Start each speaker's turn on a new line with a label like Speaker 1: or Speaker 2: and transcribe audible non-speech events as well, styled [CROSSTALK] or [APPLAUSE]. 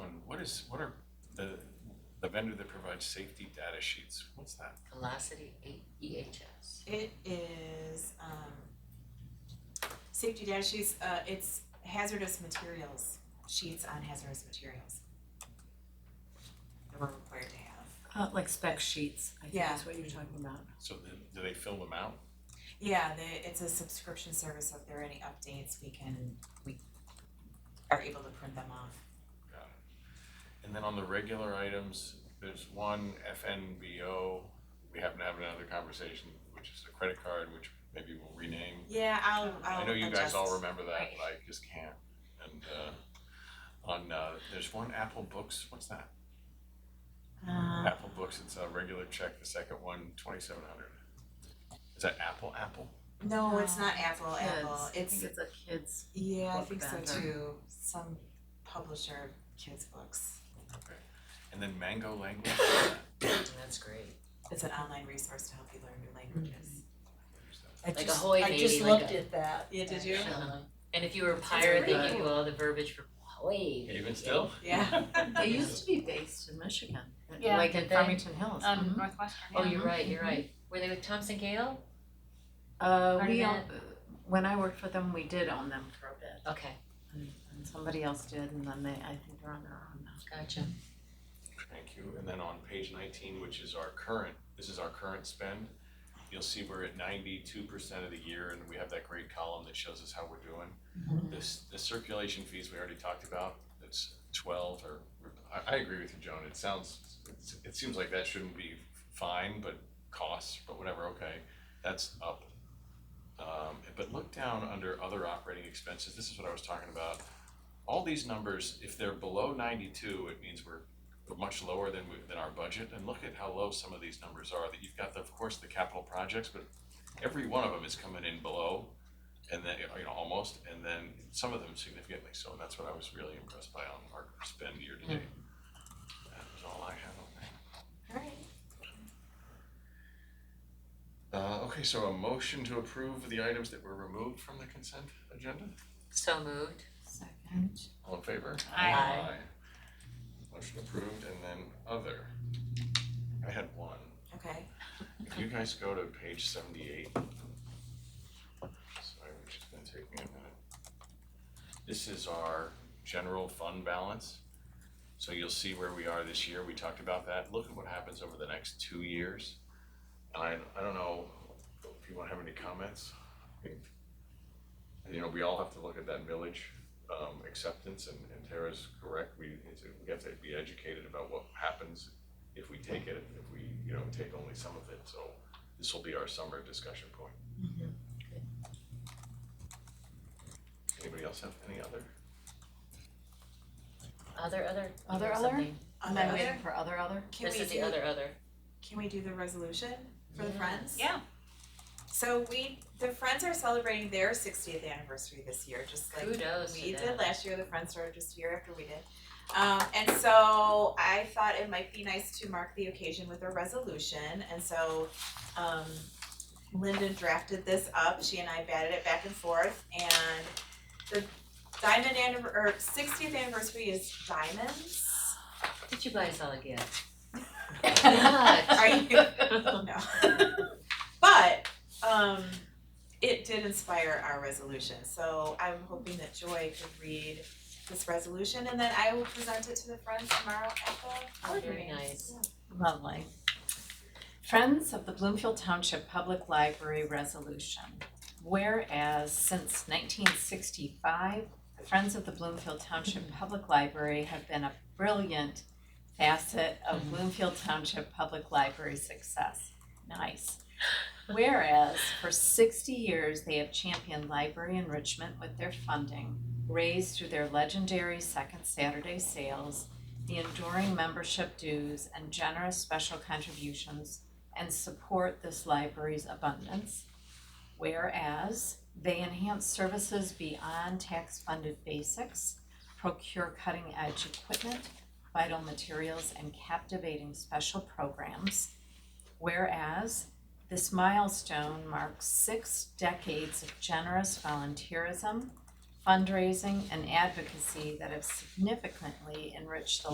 Speaker 1: is, Um, what are the, the vendor that provides safety data sheets, what's that?
Speaker 2: Velocity E A- EHS.
Speaker 3: It is, um, safety data sheets, uh, it's hazardous materials, sheets on hazardous materials. That we're required to have.
Speaker 4: Uh, like spec sheets, I think
Speaker 3: Yeah.
Speaker 4: is what you're talking about.
Speaker 1: So then, do they fill them out?
Speaker 3: Yeah, the, it's a subscription service, so if there are any updates, we can, we are able to print them off.
Speaker 1: Got it. And then on the regular items, there's one FNBO, we happen to have another conversation, which is the credit card, which maybe we'll rename.
Speaker 3: Yeah, I'll, I'll
Speaker 1: I know you guys
Speaker 3: adjust.
Speaker 1: all remember that,
Speaker 2: Right.
Speaker 1: but I just can't. And uh on uh there's one Apple Books, what's that?
Speaker 3: Uh,
Speaker 1: Apple Books, it's a regular check, the second one, twenty seven hundred. Is that Apple Apple?
Speaker 3: no, it's not Apple, Apple,
Speaker 4: Kids, I
Speaker 3: it's,
Speaker 4: think it's a kids.
Speaker 3: yeah, I
Speaker 4: book
Speaker 3: think so
Speaker 4: vendor.
Speaker 3: too, some publisher of kids' books.
Speaker 1: Okay. And then Mango Language, what's that?
Speaker 2: That's great.
Speaker 3: It's an online resource to help you learn new languages.
Speaker 5: I
Speaker 2: Like a
Speaker 5: just,
Speaker 2: Hoy
Speaker 5: I
Speaker 2: Baby,
Speaker 5: just
Speaker 2: like
Speaker 5: looked
Speaker 2: a-
Speaker 5: at that.
Speaker 3: Yeah, did you?
Speaker 2: Uh-huh. And if you were a pirate, they give you all the verbiage for Hawaii.
Speaker 1: Even still?
Speaker 2: [LAUGHS]
Speaker 3: Yeah.
Speaker 4: They used to be based in Michigan,
Speaker 5: Yeah,
Speaker 4: like
Speaker 2: did
Speaker 4: in
Speaker 2: they?
Speaker 4: Farmington Hills.
Speaker 5: Um,
Speaker 4: Mhm.
Speaker 5: Northwestern,
Speaker 2: Oh,
Speaker 5: yeah.
Speaker 2: you're right, you're right. Were they with Thompson Gale?
Speaker 4: Uh,
Speaker 5: Part
Speaker 4: we,
Speaker 5: of
Speaker 4: own- when I worked for them, we did own them for a bit,
Speaker 2: Okay,
Speaker 4: and somebody else did, and then they, I think they're on their own now.
Speaker 2: gotcha.
Speaker 1: Thank you. And then on page nineteen, which is our current, this is our current spend. You'll see we're at ninety-two percent of the year and we have that great column that shows us how we're doing. This, the circulation fees we already talked about, it's twelve or, I, I agree with you, Joan. It sounds, it's- it seems like that shouldn't be fine, but costs, but whatever, okay, that's up. Um, but look down under other operating expenses. This is what I was talking about. All these numbers, if they're below ninety-two, it means we're were much lower than we, than our budget, and look at how low some of these numbers are, that you've got, the- of course, the capital projects, but every one of them is coming in below, and then, you know, almost, and then some of them significantly so, and that's what I was really impressed by on our spend year to date. That was all I had on that.
Speaker 3: Alright.
Speaker 1: Uh, okay, so a motion to approve the items that were removed from the consent agenda,
Speaker 2: So moved.
Speaker 4: Second.
Speaker 1: all in favor?
Speaker 5: Aye.
Speaker 2: Aye.
Speaker 1: Motion approved, and then other. I had one.
Speaker 3: Okay.
Speaker 1: If you guys go to page seventy-eight. Sorry, which is gonna take me a minute. This is our general fund balance. So you'll see where we are this year, we talked about that, look at what happens over the next two years. And I, I don't know if you wanna have any comments. You know, we all have to look at that village, um, acceptance and, and Tara's correct, we, it's- we have to be educated about what happens if we take it, if we, you know, take only some of it, so this will be our summer discussion point. Anybody else have any other?
Speaker 2: Other, other.
Speaker 4: Other,
Speaker 2: or
Speaker 4: other?
Speaker 2: something.
Speaker 3: On
Speaker 4: Am
Speaker 3: that
Speaker 4: I
Speaker 3: other,
Speaker 4: waiting for other, other?
Speaker 3: Um, can
Speaker 2: This
Speaker 3: we
Speaker 2: is the
Speaker 3: do,
Speaker 2: other, other.
Speaker 3: can we do the resolution for the
Speaker 2: Yeah.
Speaker 3: Friends?
Speaker 5: Yeah.
Speaker 3: So we, the Friends are celebrating their sixtieth anniversary this year, just like
Speaker 2: Kudos to
Speaker 3: we
Speaker 2: them.
Speaker 3: did last year, the Friends started just a year after we did. Um, and so I thought it might be nice to mark the occasion with a resolution, and so, um, Lyndon drafted this up, she and I batted it back and forth, and the diamond annivers- or sixtieth anniversary is diamonds.
Speaker 2: Did you buy us all a gift?
Speaker 3: Are you? No. But, um, it did inspire our resolution, so I'm hoping that Joy could read this resolution and then I will present it to the friends tomorrow at the
Speaker 2: Oh,
Speaker 3: board
Speaker 2: [LAUGHS] very
Speaker 3: meeting.
Speaker 2: nice.
Speaker 4: Lovely. Friends of the Bloomfield Township Public Library Resolution. Whereas since nineteen sixty-five, the Friends of the Bloomfield Township Public Library have been a brilliant facet of Bloomfield Township Public Library success. Nice. Whereas for sixty years, they have championed library enrichment with their funding, raised through their legendary Second Saturday sales, the enduring membership dues and generous special contributions and support this library's abundance. Whereas they enhance services beyond tax-funded basics, procure cutting-edge equipment, vital materials, and captivating special programs. Whereas this milestone marks six decades of generous volunteerism, fundraising, and advocacy that have significantly enriched the